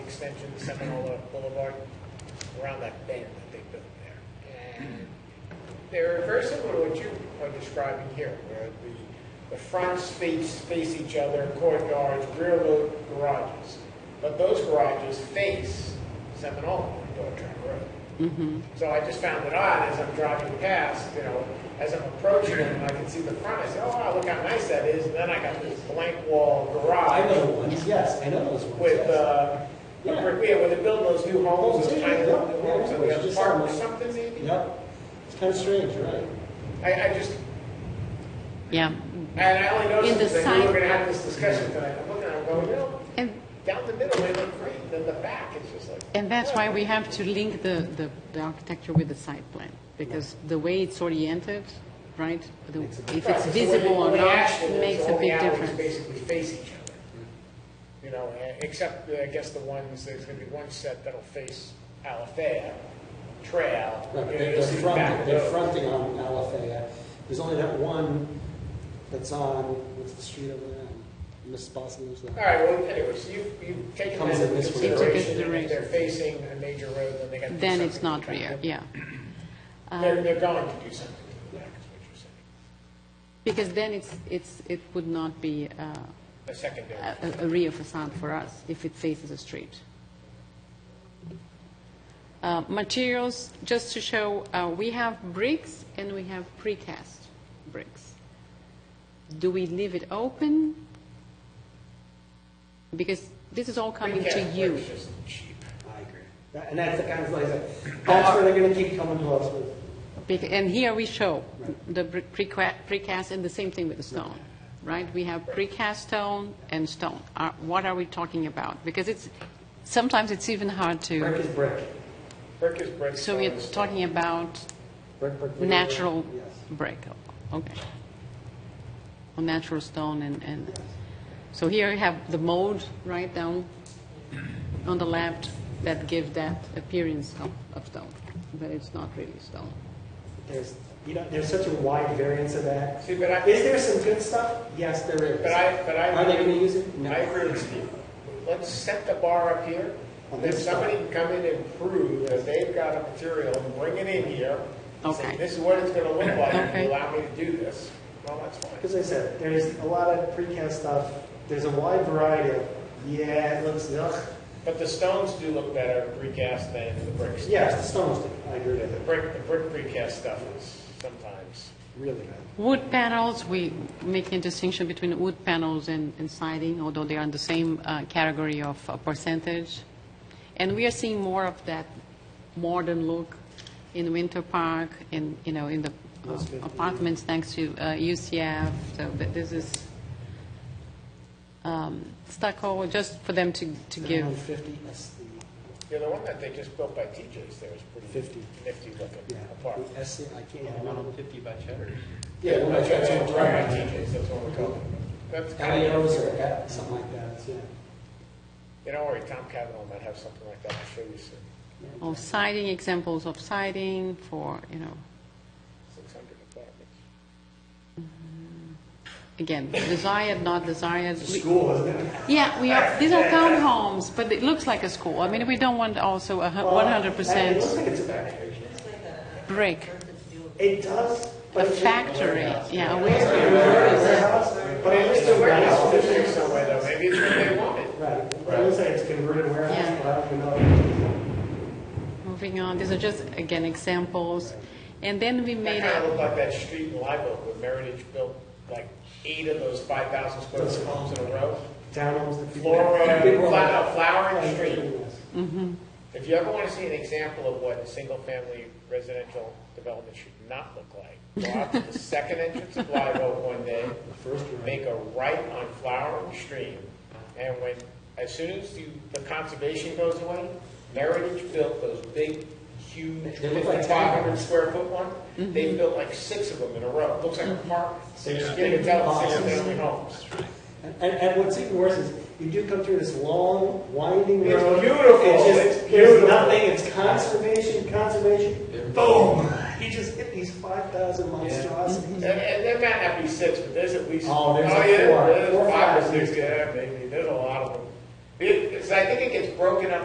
extension, Seminole Boulevard, around that bend that they built there. And they're very similar to what you are describing here, where the, the fronts face, face each other, courtyards, rear lo- garages. But those garages face Seminole and Dorchester Road. So I just found it odd as I'm driving past, you know, as I'm approaching it, and I can see the front, I say, oh, wow, look how nice that is, and then I got this blank wall I know garage the ones, yes, I know those ones. with, yes. uh, with, Yeah. brick- yeah, where they're building those new homes, those Yeah, tiny yeah, little yeah, homes, and they yeah, have a just park or some- something maybe? Yep, it's kind of strange, right? I, I just, Yeah, and I only In noticed, the because I knew we were side- gonna have this discussion tonight, I'm looking at it, going, you know, and, down the middle, they look great, then the back is just like. and that's why we have to link the, the, the architecture with the site plan, because the way it's oriented, right, the- if Right, it's so visible when- or when not, Ashland is, makes a all the big alleys difference. Basically face each other, you know, eh, except, eh, I guess the ones, there's gonna be one set that'll face Alafaya Trail. You Right, but know, they're you'll they're see the back fronting, of they're those. fronting on Alafaya. There's only that one that's on, what's the street over there? Miss Boston, there's All that. right, well, anyway, so you, you've taken Comes that in into this way. consideration, Into and if they're consideration. facing a major road, then they gotta do something. Then it's not to back rear, Uh, up. yeah. They're, they're going to do something to the back, is what you're saying, Because then it's, it's, it would not be uh, a secondary. a, a- a rear facade for us if it faces a street. Uh, Materials, just to show, uh, we have bricks and we have precast bricks. Do we leave it open? Because this is all coming to Precast you. bricks just cheap. I agree. That- And that's the kind of, like I said, that's where they're gonna keep coming to us with. Bec- And here we show the br- preca- precast, and the same thing with the stone, right? We have precast stone and stone. Are- What are we talking about? Because it's, sometimes it's even hard to, Brick is brick. Brick is brick. so stone we're is stone. talking about Brick, brick, brick. natural Yes. brick, okay. Or natural stone and, and, so here you have the mold right down on the left that give that appearance of- of stone, but it's not really stone. There's, you know, there's such a wide variance of that. See, but I, Is there some good stuff? Yes, there is. But I, but I. Are they gonna use it? No. I agree with Steve. Let's set the bar up here, On then this side. somebody can come in and prove that they've got a material, and bring it in here. and say, Okay. This is what it's gonna look like, if Okay. you allow me to do this, well, that's fine. Because I said, there's a lot of precast stuff, there's a wide variety of, yeah, it looks, ugh. But the stones do look better precast than the bricks. Yes, the stone was different, I agree The with it, brick, the brick precast stuff is sometimes, really bad. Wood panels, we make a distinction between wood panels and and siding, although they are in the same uh, category of uh, percentage. And we are seeing more of that modern look in Winter Park, in, you know, in the uh, That's good. apartments next to uh, UCF, so th- this is um, stucco, just for them to to Down give, Fifty, that's the, you know, the one that they just built by TJ's there is pretty. 50. Nifty looking yeah, apartment. the S, I can't, I don't know. Fifty by Cheddar. Yeah, the one that's- that's on the Right, by right. TJ's, that's what we're calling it. That's kind of. Alleos or that- something like that, it's, yeah. You know, worry, Tom Cavanaugh might have something like that, I'll show you soon. oh, siding, examples of siding for, you know, Six hundred apartments. again, desired, not desired. It's a We- school, isn't it? Yeah, we are, these are townhomes, but it looks like a school. I mean, we don't want also a hu- It looks 100% like it's a factory. brick, It does, a but. it- factory, yeah. a warehouse. It's a warehouse, But it is a warehouse, It's fixed somewhere though, maybe it's what they wanted. right, but I would say it's converted warehouse, Yeah. but I don't even know. Moving on, these are just, again, examples. And then we That made kinda a, looked like that street in Live where Meritage built like eight of those five thousand square foot homes in a row. Townhomes that people. Flora, people are like- flower, "Oh, flowering street. If you ever wanna see an example of what a single-family residential development should not look like, go out to the second entrance of Live Oak one day, First row. make a right on Flowering Stream, and when, as soon as you, the conservation goes away, Meritage built those big, huge, They look like Mm-hmm. fifty-five hundred square foot one, they built like six of them in a row, looks like apartments. They just get to tell it's six family homes. And, and- and what's even worse is, you do come through this long, winding It's road. beautiful. It's It's just, beautiful. there's nothing, it's conservation, conservation, boom! You just hit these five thousand And, monstrosities. and there might not be six, but there's at least. Oh, there's like yeah, four. There's Four, five or five. six, yeah, maybe, there's a lot of them. It, it's, I think it gets broken up